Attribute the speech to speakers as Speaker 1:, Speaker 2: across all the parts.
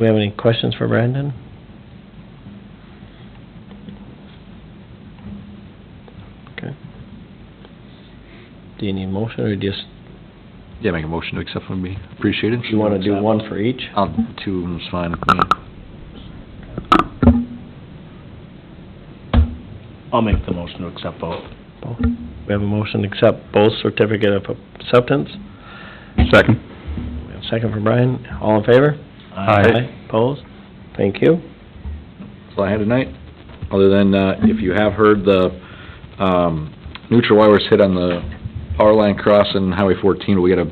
Speaker 1: we have any questions for Brandon? Okay. Do you need motion, or just,
Speaker 2: Yeah, make a motion to accept would be appreciated.
Speaker 1: you wanna do one for each?
Speaker 2: I'll, two of them's fine with me.
Speaker 3: I'll make the motion to accept both.
Speaker 1: We have a motion to accept both certificate of acceptance.
Speaker 4: Second.
Speaker 1: We have a second for Brian. All in favor? Opposed? Thank you.
Speaker 2: That's all I had tonight, other than, uh, if you have heard, the, um, neutral wire was hit on the power line crossing Highway fourteen, we got a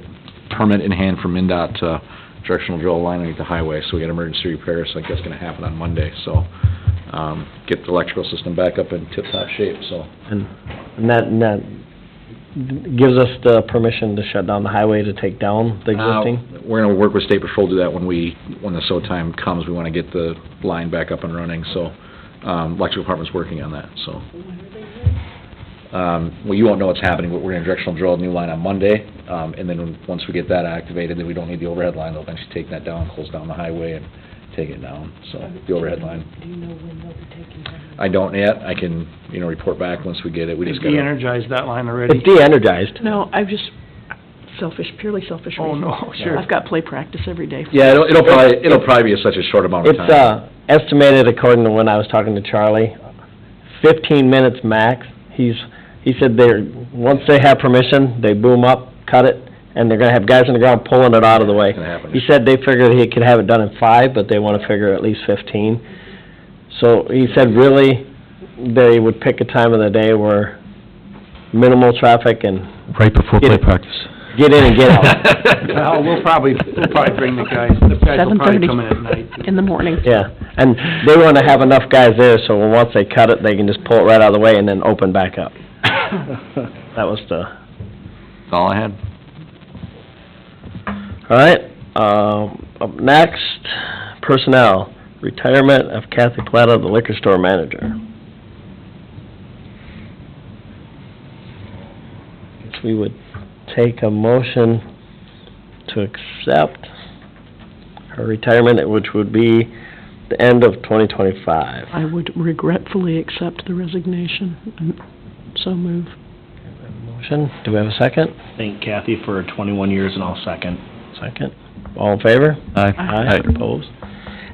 Speaker 2: permit in hand from MinDOT, uh, directional draw line underneath the highway, so we got emergency repairs, I think that's gonna happen on Monday, so, um, get the electrical system back up in tip-top shape, so.
Speaker 1: And and that, and that gives us the permission to shut down the highway to take down the existing?
Speaker 2: Uh, We're gonna work with State Patrol, do that when we, when the SO time comes, we wanna get the line back up and running, so, um, electrical department's working on that, so. Um, well, you won't know what's happening, but we're gonna directional drill a new line on Monday, um, and then once we get that activated, then we don't need the overhead line, they'll eventually take that down, close down the highway and take it down, so, the overhead line.
Speaker 5: Do you know when they'll be taking down?
Speaker 2: I don't yet, I can, you know, report back once we get it, we just gotta.
Speaker 3: de-energized that line already?
Speaker 1: It's de-energized.
Speaker 5: No, I'm just selfish, purely selfish reason.
Speaker 3: Oh, no, sure.
Speaker 5: I've got play practice every day.
Speaker 2: Yeah, it'll, it'll probably, it'll probably be such a short amount of time.
Speaker 1: It's, uh, estimated according to when I was talking to Charlie, fifteen minutes max. He's, he said they're, once they have permission, they boom up, cut it, and they're gonna have guys on the ground pulling it out of the way.
Speaker 2: It's gonna happen.
Speaker 1: He said they figured he could have it done in five, but they wanna figure at least fifteen. So he said really, they would pick a time of the day where minimal traffic and
Speaker 4: Right before
Speaker 1: Get
Speaker 4: play
Speaker 1: it.
Speaker 4: practice.
Speaker 1: get in and get out.
Speaker 3: Well, we'll probably, we'll probably bring the guys, the guys will probably come in at night.
Speaker 5: In the morning.
Speaker 1: Yeah, and they wanna have enough guys there, so once they cut it, they can just pull it right out of the way and then open back up. That was the,
Speaker 2: That's all I had.
Speaker 1: all right, um, up next, personnel, retirement of Kathy Plata, the liquor store manager. Guess we would take a motion to accept her retirement, which would be the end of twenty twenty-five.
Speaker 5: I would regretfully accept the resignation, Um, so move.
Speaker 1: Motion, do we have a second?
Speaker 3: Thank Kathy for 21 years and I'll second.
Speaker 1: Second. All in favor?
Speaker 4: Aye.
Speaker 1: Opposed?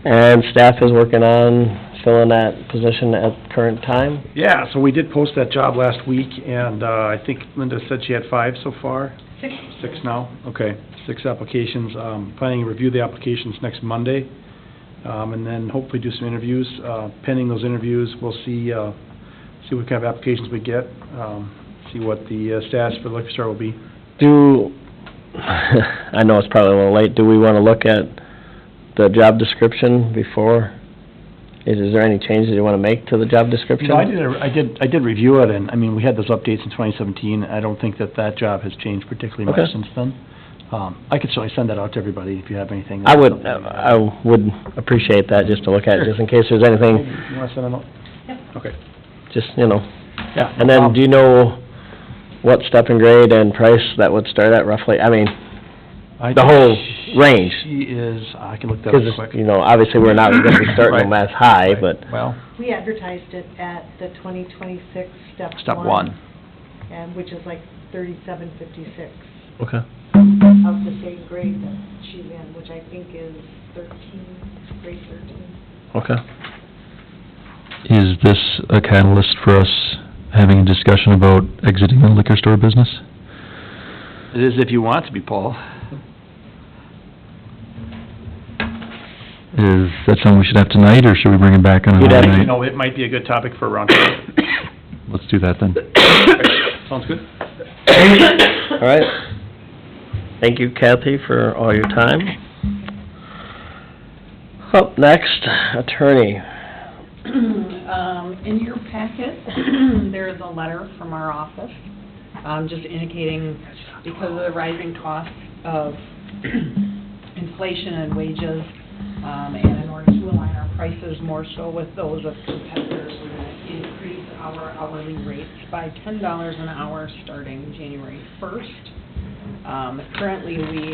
Speaker 1: And staff is working on filling that position at current time?
Speaker 3: Yeah, so we did post that job last week and uh, I think Linda said she had five so far?
Speaker 6: Six.
Speaker 3: Six now? Okay, six applications. Um, Planning to review the applications next Monday, um, and then hopefully do some interviews. Uh, Pending those interviews, we'll see, uh, see what kind of applications we get, um, see what the uh, status for the liquor store will be.
Speaker 1: Do, I know it's probably a little late, do we want to look at the job description before? Is is there any changes you want to make to the job description?
Speaker 3: No, I did, I did, I did review it, and, I mean, we had those updates in 2017, I don't think that that job has changed particularly much
Speaker 1: Okay.
Speaker 3: since then. Um, I could certainly send that out to everybody if you have anything.
Speaker 1: I would, I would appreciate that, just to look at, just in case there's
Speaker 3: You
Speaker 1: anything,
Speaker 3: want to send it out? Okay.
Speaker 1: just, you know.
Speaker 3: Yeah. Um,
Speaker 1: And then, do you know what step and grade and price that would start at roughly? I mean, the whole range.
Speaker 3: She is, I can look that up
Speaker 1: Because, you
Speaker 3: quick.
Speaker 1: know, obviously, we're not gonna be starting them as high, but,
Speaker 3: Well,
Speaker 6: We advertised it at the 2026 step one.
Speaker 4: Step one.
Speaker 6: And which is like 3756
Speaker 1: okay,
Speaker 4: Mm-hmm.
Speaker 6: of the same grade that she's in, which I think is 13, grade 13.
Speaker 1: okay.
Speaker 4: Is this a catalyst for us having a discussion about exiting the liquor store business?
Speaker 3: it is if you want it to be, Paul.
Speaker 4: Is that something we should have tonight, or should we bring it back on
Speaker 1: You'd
Speaker 4: another
Speaker 1: have to
Speaker 4: night?
Speaker 3: You know, Oh, it might be a good topic for a roundtable.
Speaker 4: Let's do that then.
Speaker 3: Sounds good?
Speaker 1: All right. Thank you, Kathy, for all your time. Up next, attorney.
Speaker 7: Um, in your packet, there is a letter from our office, um, just indicating because of the rising cost of inflation and wages, um, and in order to align our prices more so with those of competitors, we're gonna increase our hourly rates by ten dollars an hour starting January first. Um, currently, we